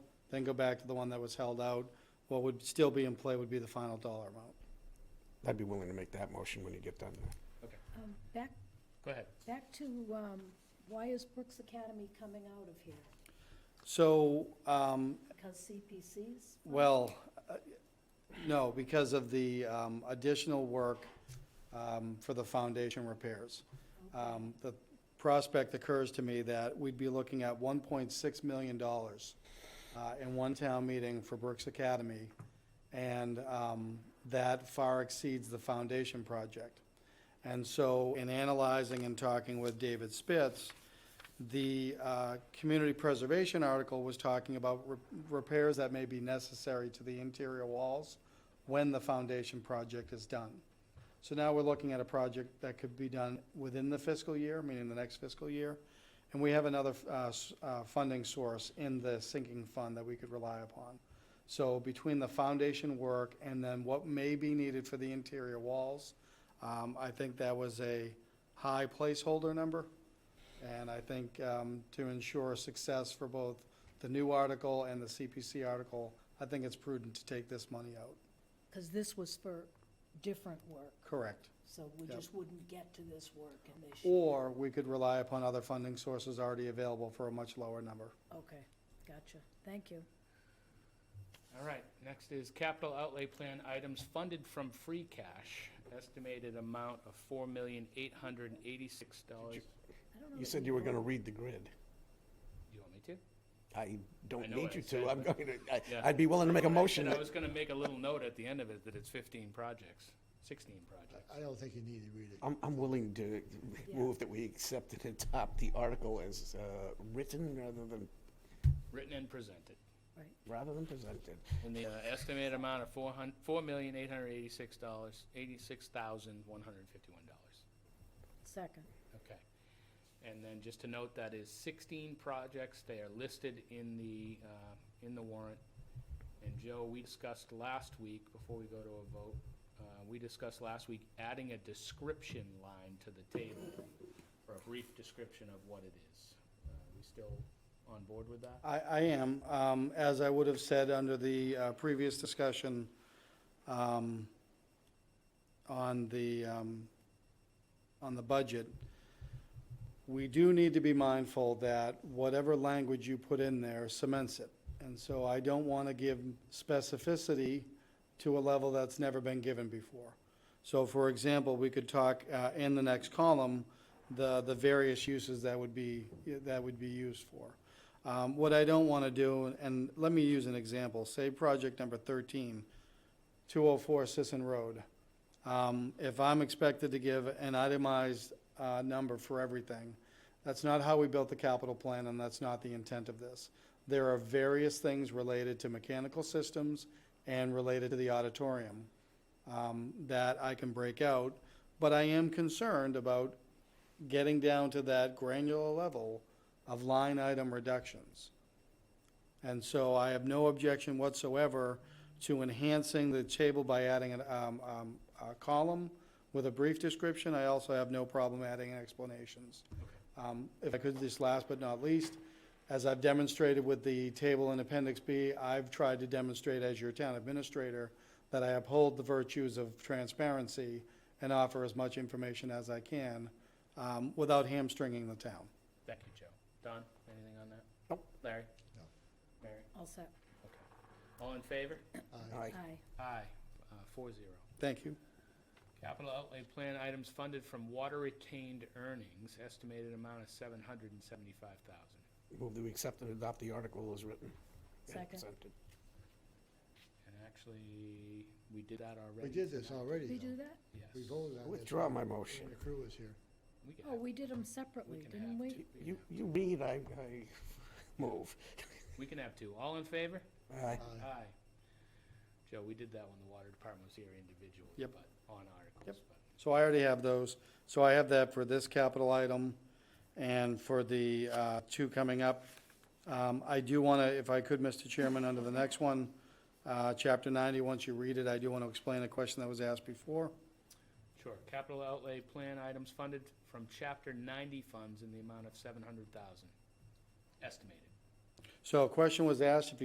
then go back to the one that was held out. What would still be in play would be the final dollar amount. I'd be willing to make that motion when you get done. Um, Back, Go ahead. back to, um, why is Brooks Academy coming out of here? So, um, Because CPC's? Well, uh, no, because of the um, additional work um, for the foundation repairs. Um, The prospect occurs to me that we'd be looking at $1.6 million uh, in one town meeting for Brooks Academy, and um, that far exceeds the foundation project. And so, in analyzing and talking with David Spitz, the uh, community preservation article was talking about re- repairs that may be necessary to the interior walls when the foundation project is done. So now we're looking at a project that could be done within the fiscal year, meaning the next fiscal year. And we have another uh, s- uh, funding source in the sinking fund that we could rely upon. So between the foundation work and then what may be needed for the interior walls, um, I think that was a high placeholder number. And I think um, to ensure success for both the new article and the CPC article, I think it's prudent to take this money out. Because this was for different work, Correct. so we Yep. just wouldn't get to this work in this year. Or we could rely upon other funding sources already available for a much lower number. Okay, gotcha. Thank you. All right, next is capital outlay plan items funded from free cash, estimated amount of four million eight hundred and eighty-six dollars. I don't know You that said we you were going to vote- read the grid. You want me to? I I don't know need what I you said, to. I'm but- going to, I- Yeah. I'd be willing to make a motion. And I that- was gonna make a little note at the end of it that it's fifteen projects, sixteen I projects. don't think you need to read it. I'm, I'm willing to move that we accept it and adopt the article as uh, written rather than, Written and presented. Right. rather than presented. And the uh, estimated amount of four hun, four million eight hundred eighty-six dollars, eighty-six thousand one hundred fifty-one dollars. Second, Okay. And then just to note, that is sixteen projects. They are listed in the, uh, in the warrant. And Joe, we discussed last week, before we go to a vote, uh, we discussed last week adding a description line to the table for a brief description of what it is. Uh, We still on board with that? I, I am, um, as I would have said under the uh, previous discussion, um, on the, um, on the budget, we do need to be mindful that whatever language you put in there cements it. And so I don't want to give specificity to a level that's never been given before. So for example, we could talk, uh, in the next column, the, the various uses that would be, that would be used for. Um, what I don't want to do, and let me use an example, say project number thirteen, 204 Sisson Road. Um, If I'm expected to give an itemized uh, number for everything, that's not how we built the capital plan, and that's not the intent of this. There are various things related to mechanical systems and related to the auditorium um, that I can break out, but I am concerned about getting down to that granular level of line item reductions. And so I have no objection whatsoever to enhancing the table by adding an, um, um, a column with a brief description. I also have no problem adding explanations. Um, if I could, this last but not least, as I've demonstrated with the table in Appendix B, I've tried to demonstrate as your town administrator that I uphold the virtues of transparency and offer as much information as I can, um, without hamstringing the town. Thank you, Joe. Don, anything on that? Nope. Larry? No. Mary? all set, Okay. All in favor? All right. aye. Aye, uh, four zero. Thank you. Capital outlay plan items funded from water retained earnings, estimated amount of seven hundred and seventy-five thousand. Move that we accept and adopt the article as written. and Second. presented. And actually, we did that already. We did this not- already, Did we do though. that? Yes. We voted on this. Withdraw my motion. When the crew was here. We can Oh, have- we did them we separately, can didn't have we? two. You, you read, I, I move. We can have two. All in favor? Aye. Aye. Aye. Joe, we did that when the water department was here individually. Yep. But on articles. Yep. but- So I already have those. So I have that for this capital item and for the uh, two coming up. Um, I do want to, if I could, Mr. Chairman, under the next one, uh, Chapter 90, once you read it, I do want to explain a question that was asked before. Sure. Capital outlay plan items funded from chapter ninety funds in the amount of seven hundred thousand, estimated. So a question was asked, if you